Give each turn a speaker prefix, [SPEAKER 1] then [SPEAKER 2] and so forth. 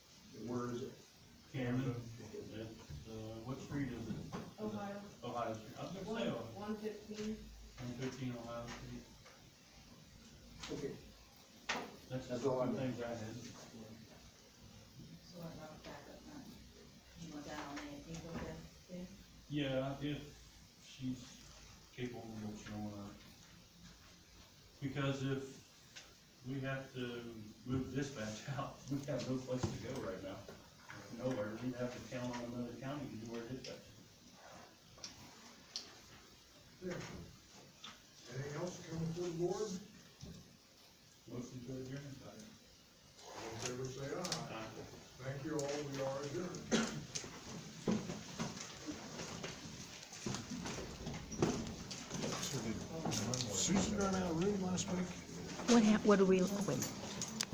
[SPEAKER 1] Chairman, uh, what street is it?
[SPEAKER 2] Ohio,
[SPEAKER 1] Ohio Street, I was gonna
[SPEAKER 2] one,
[SPEAKER 1] say,
[SPEAKER 2] one fifteen,
[SPEAKER 1] one fifteen Ohio Street,
[SPEAKER 3] Okay.
[SPEAKER 1] that's
[SPEAKER 3] That's
[SPEAKER 1] just
[SPEAKER 3] all I
[SPEAKER 1] one
[SPEAKER 3] know.
[SPEAKER 1] thing I had.
[SPEAKER 4] So I brought back up my, you want that on there, you go there, there?
[SPEAKER 1] Yeah, if she's capable of showing up. Because if we have to move dispatch out, we have no place to go right now. Nowhere, we'd have to count on another county to do our dispatch.
[SPEAKER 5] Anything else coming to the board?
[SPEAKER 1] Motion to adjourn.
[SPEAKER 5] All in favor, say aye.
[SPEAKER 1] Aye.
[SPEAKER 5] Thank you all, we are adjourned.
[SPEAKER 6] Susan ran out of room last week.
[SPEAKER 7] What hap, what do we, wait,